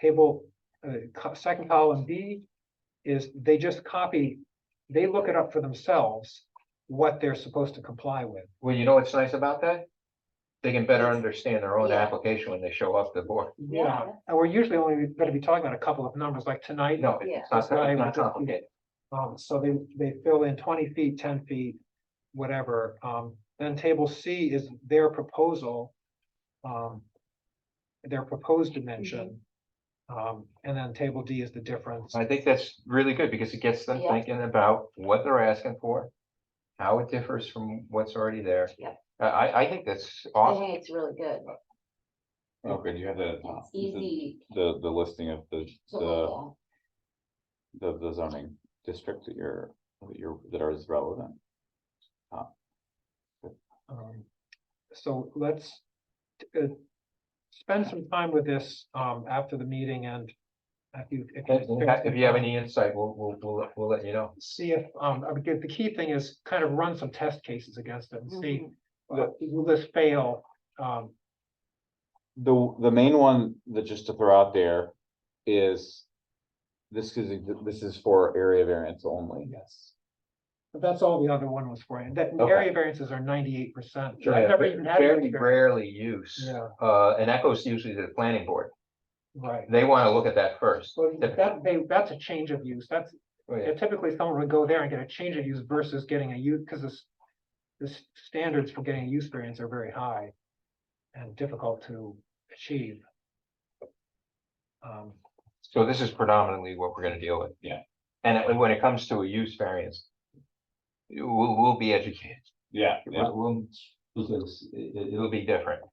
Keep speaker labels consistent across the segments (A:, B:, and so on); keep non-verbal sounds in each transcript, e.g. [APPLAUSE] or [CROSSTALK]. A: table, uh, co- second column B is they just copy, they look it up for themselves, what they're supposed to comply with.
B: Well, you know what's nice about that? They can better
C: Yes.
B: understand their own
C: Yeah.
B: application when they show up the board. [LAUGHS]
C: Yeah.
A: And we're usually only gonna be talking about a couple of numbers, like tonight.
B: No,
C: Yeah.
B: it's not, it's
A: Right,
B: not
A: it's just-
B: complicated.
A: Um, so they, they fill in twenty feet, ten feet, whatever, um, then table C is their proposal. Um. Their proposed dimension.
C: Mm-hmm.
A: Um, and then table D is the difference.
B: I think that's really good because it gets them
C: Yeah.
B: thinking about what they're asking for. How it differs from what's already there.
C: Yep.
B: I, I, I think that's
C: I
B: awesome.
C: think it's really good.
D: Okay, you have the,
C: It's
D: the,
C: easy
D: the the listing of the,
C: to look
D: the,
C: at.
D: the the zoning district that you're, that you're, that are relevant.
A: Um, so let's. uh, Spend some time with this, um, after the meeting and. If you. if you
B: If you have- if you have any insight, we'll, we'll, we'll, we'll let you know.
A: See if, um, I would get, the key thing is kind of run some test cases against it and see,
C: Mhm.
A: uh, will this fail? Um,
D: The, the main one that just to throw out there is. This is, this is for area variance only.
A: Yes. But that's all the other one was for, and that
B: Okay.
A: area variances are ninety-eight percent.
B: Yeah,
A: I've never
B: fa-
A: even had. an
B: Fairly
A: experience-
B: rarely used,
A: Yeah,
B: uh, and that goes usually to the planning board.
A: right.
B: They want to look at that first.
A: So
B: typically.
A: that, they, that's a change of use, that's,
B: Oh, yeah.
A: yeah, typically someone would go there and get a change of use versus getting a use, because this. The s- standards for getting a use variance are very high. And difficult to achieve. Um,
B: So this is predominantly what we're gonna deal with.
D: Yeah.
B: And it- when it comes to a use variance. We'll, we'll be educated,
D: Yeah.
B: We'll- we'll- because it, will be different.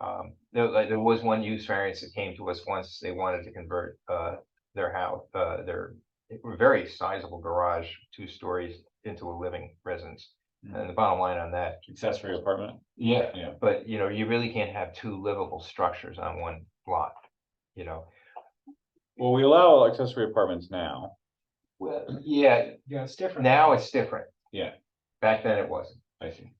B: Um, there, like, there was one use variance that came to us once, they wanted to convert, uh, their house, uh, their. Very sizable garage, two stories into a living residence, and the bottom line on that,
D: Accessory apartment.
B: Hmm. yeah,
D: Yeah.
B: but you know, you really can't have two livable structures on one lot. You know,
D: Well, we allow accessory apartments now.
B: well, yeah,
A: yeah, it's different.
B: Now it's different.
D: Yeah.
B: Back then it wasn't.
D: I see.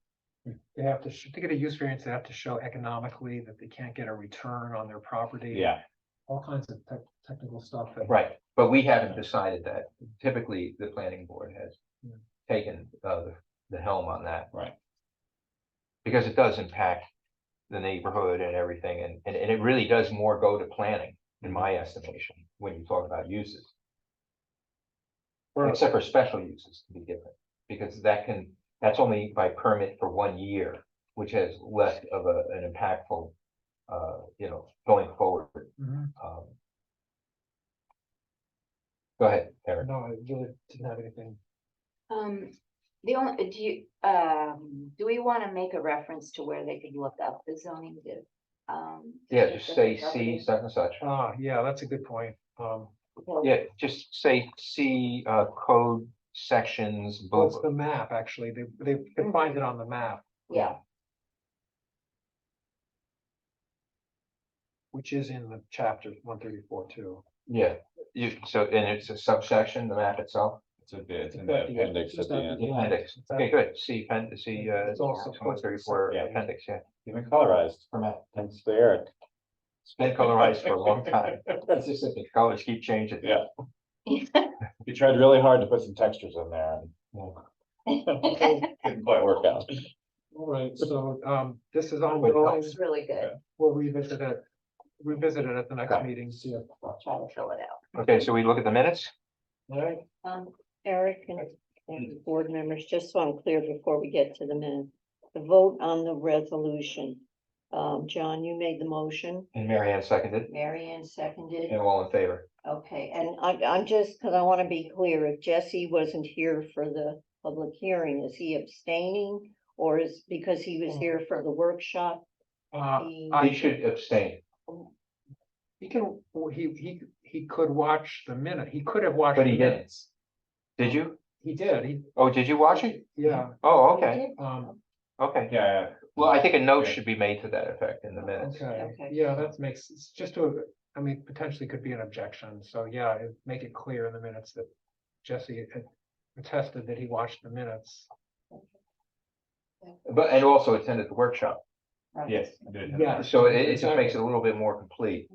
A: They have to, sh- to get a use variance, they have to show economically that they can't get a return on their property.
D: Yeah,
A: All kinds of tech, technical stuff that.
B: Right, but we haven't decided that. Typically, the planning board has
A: Yeah.
B: taken uh the- the helm on that.
D: Right.
B: Because it does impact the neighborhood and everything, and and and it really does more go to planning, in my
D: Mm-hmm.
B: estimation, when you talk about uses.
A: Or-
B: Except for special uses to be different, because that can, that's only by permit for one year, which has less of a an impactful. Uh, you know, going forward,
A: Mhm.
B: um. Go ahead, Eric.
A: No, I really didn't have anything.
C: Um, the only, do you, um, do we wanna make a reference to where they could look up the zoning to? um, to
B: Yeah,
C: get
B: just
C: the
B: say
C: property?
B: C such and such.
A: Ah, yeah, that's a good point. Um,
C: Because
B: Yeah, just say C uh code sections,
A: well, it's
B: both.
A: the map, actually. They, they can find it on the map,
C: Yeah,
A: which is in the chapter one thirty-four too.
B: Yeah, you, so and it's a subsection, the map itself.
D: it's a bit, it's in
A: It's
D: the
A: at the end,
D: appendix
A: just
D: at the
A: at the
D: end.
A: Yeah.
B: Appendix. Okay, good. C pen, C uh.
A: It's also
B: One thirty four
D: Yeah.
B: appendix, yeah.
D: You've been colorized.
B: Format.
D: Thanks to [LAUGHS] Eric.
B: It's been colorized for a long time. It's just that the colors keep changing.
D: Yeah. He tried really hard to put some textures in there
C: [LAUGHS]
D: [LAUGHS] and. Didn't quite work out.
A: All right, so, um, this is
B: Wait,
A: ongoing.
C: it's really good.
A: We'll revisit it, revisit it at the next
B: Okay.
A: meeting, see if.
C: We'll try to fill it out.
B: Okay, so we look at the minutes?
A: All right,
C: Um,
E: Eric and and board members, just so I'm clear before we get to the minute, the vote on the resolution. Um, John, you made the motion
B: And Mary Ann seconded
C: Mary Ann seconded,
B: and all in favor.
C: okay, and
E: and I, I'm just, cause I wanna be clear, if Jesse wasn't here for the public hearing, is he abstaining? Or is, because he was here for the workshop?
A: uh,
E: he-
A: I-
B: He should abstain.
A: he can, he, he, he could watch the minute. He could have watched.
B: But he
A: the
B: didn't.
A: minutes.
B: Did you?
A: He did, he,
B: Oh, did you watch it?
A: yeah,
B: Oh,
C: we
B: okay,
C: did-
A: um,
B: okay.
D: Yeah.
B: Well, I think a note
D: Yeah.
B: should be made to that effect in the minutes.
A: okay,
C: Okay.
A: yeah, that makes, it's just to, I mean, potentially could be an objection, so yeah, it- make it clear in the minutes that Jesse had attested that he watched the minutes.
B: But, and also attended the workshop.
C: right.
D: Yes. I did.
A: Yeah.
B: So it, it just makes it a little bit more complete.